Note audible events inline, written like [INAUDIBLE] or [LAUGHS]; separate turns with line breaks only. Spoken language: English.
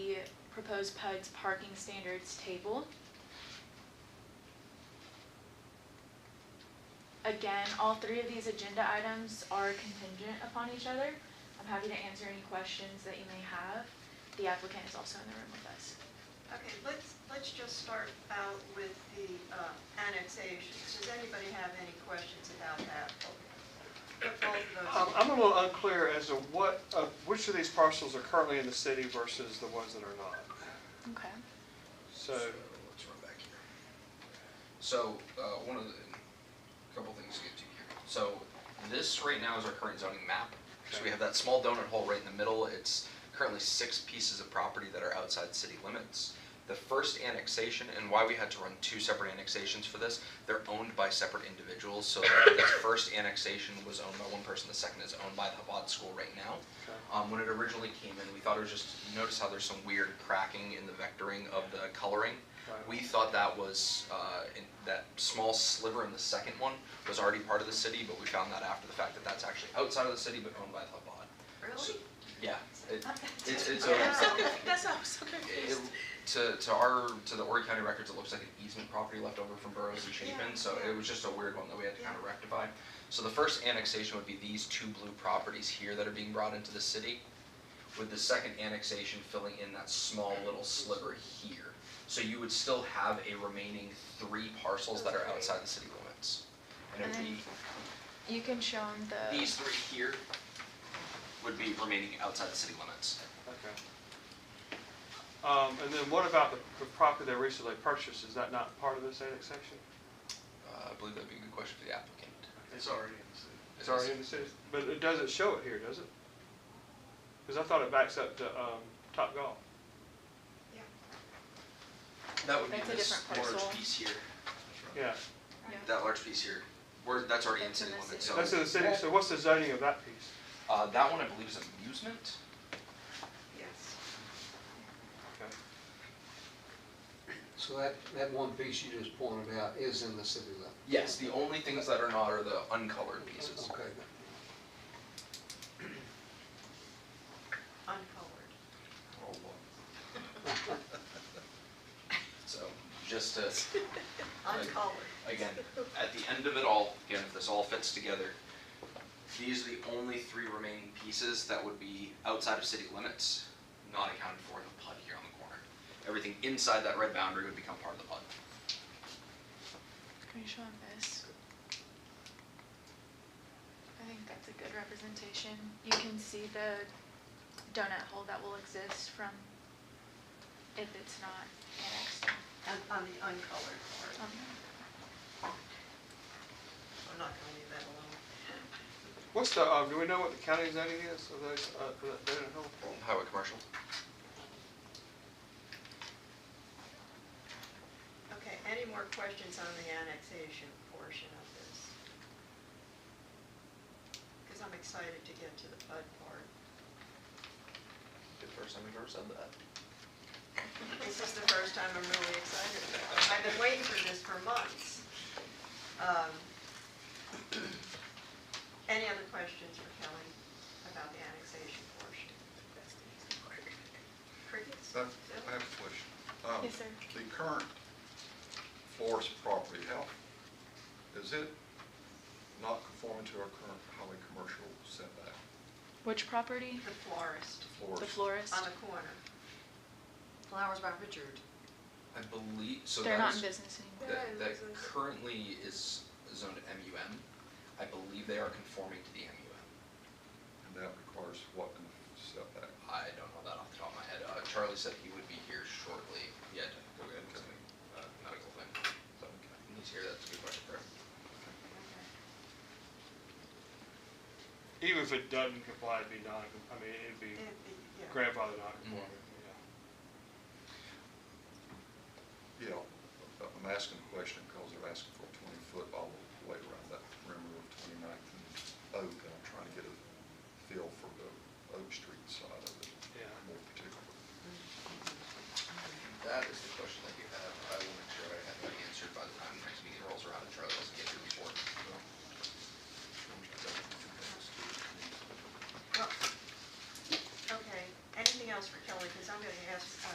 proposed PUD's parking standards table. Again, all three of these agenda items are contingent upon each other. I'm happy to answer any questions that you may have. The applicant is also in the room with us.
Okay, let's, let's just start out with the uh, annexations. Does anybody have any questions about that? Put
Um,
I'm,
both of those.
Um, I'm a little unclear as to what, uh, which of these parcels are currently in the city versus the ones that are not.
Okay.
So,
Let's run back here. So, uh, one of the, couple things to get to here. So, this right now is our current zoning map. So we have that small donut hole right in the middle. It's currently six pieces of property that are outside city limits. The first annexation, and why we had to run two separate annexations for this, they're owned by separate individuals. So the first annexation was owned by one person, the second is owned by the Chabad School right now. Um, when it originally came in, we thought it was just, notice how there's some weird cracking in the vectoring of the coloring?
Right.
We thought that was, uh, in, that small sliver in the second one was already part of the city, but we found out after the fact that that's actually outside of the city but owned by the Chabad. So-
Really?
Yeah, it,
[LAUGHS]
it's, it's
Yeah.
a,
That's why I'm so
it, to, to our, to the Horry County records, it looks like an easement property left over from Burroughs and
Yeah,
Chapin, so
yeah.
it was just a weird one that we had to kind of
Yeah.
rectify. So the first annexation would be these two blue properties here that are being brought into the city, with the second annexation filling in that small little sliver here. So you would still have a remaining three parcels that are outside the city limits. And it would be,
You can show them the.
these three here would be remaining outside the city limits.
okay. Um, and then what about the, the property they recently purchased? Is that not part of this annexation?
Uh, I believe that'd be a good question for the applicant.
It's already in the city.
It's already in the city, but it doesn't show it here, does it? Because I thought it backs up to, um, Top Golf.
That would be
That's a
this
different
large
parcel.
piece here.
Yeah,
That large piece here, where, that's already in
That's in
city
the
limits, so.
city.
that's in the city, so what's the zoning of that piece?
Uh, that one I believe is amusement,
Yes.
Okay.
So that, that one piece you just pointed out is in the city limit?
yes, the only things that are not are the uncolored [LAUGHS] pieces.
Okay.
Uncolored.
Oh, boy. So, just to Like-
Uncolored.
again, at the end of it all, again, if this all fits together, these are the only three remaining pieces that would be outside of city limits, not accounted for in the PUD here on the corner. Everything inside that red boundary would become part of the PUD.
Can you show them this? I think that's a good representation. You can see the donut hole that will exist from if it's not annexed.
And On the uncolored part.
Um,
I'm not gonna leave that alone. [LAUGHS]
What's the, um, do we know what the county zoning is of those, uh, of that donut hole?
Highway commercial?
Okay, any more questions on the annexation portion of this? Because I'm excited to get to the PUD part.
The first time we've ever said that.
This is the first time I'm really excited about it. I've been waiting for this for months. Um, [CLEARS THROAT] Any other questions for Kelly about the annexation portion? Crickets?
I Uh, I have a question. Um,
Yes, sir.
The current forest property, how, is it not conforming to our current highway commercial setback?
Which property?
The florist
The
Florist,
florist?
on the corner. Flowers by Richard.
I believe, so
They're
that
not in
is,
business anymore.
that, that currently is zoned MUM. I believe they are conforming to the MUM.
and that requires what kind of setback?
I don't know that off the top of my head. Uh, Charlie said he would be here shortly. Yeah, to go get him something, uh, medical thing. So, when he's here, that's a good question for him.
Even if it doesn't comply, it'd be non, I mean, it'd be grandfather non-conforming, yeah.
Yeah, Uh, I'm asking a question because they're asking for a twenty-foot all the way around that perimeter of 29th and Oak, and I'm trying to get a feel for the Oak Street side of it
Yeah.
more particularly.
That is the question I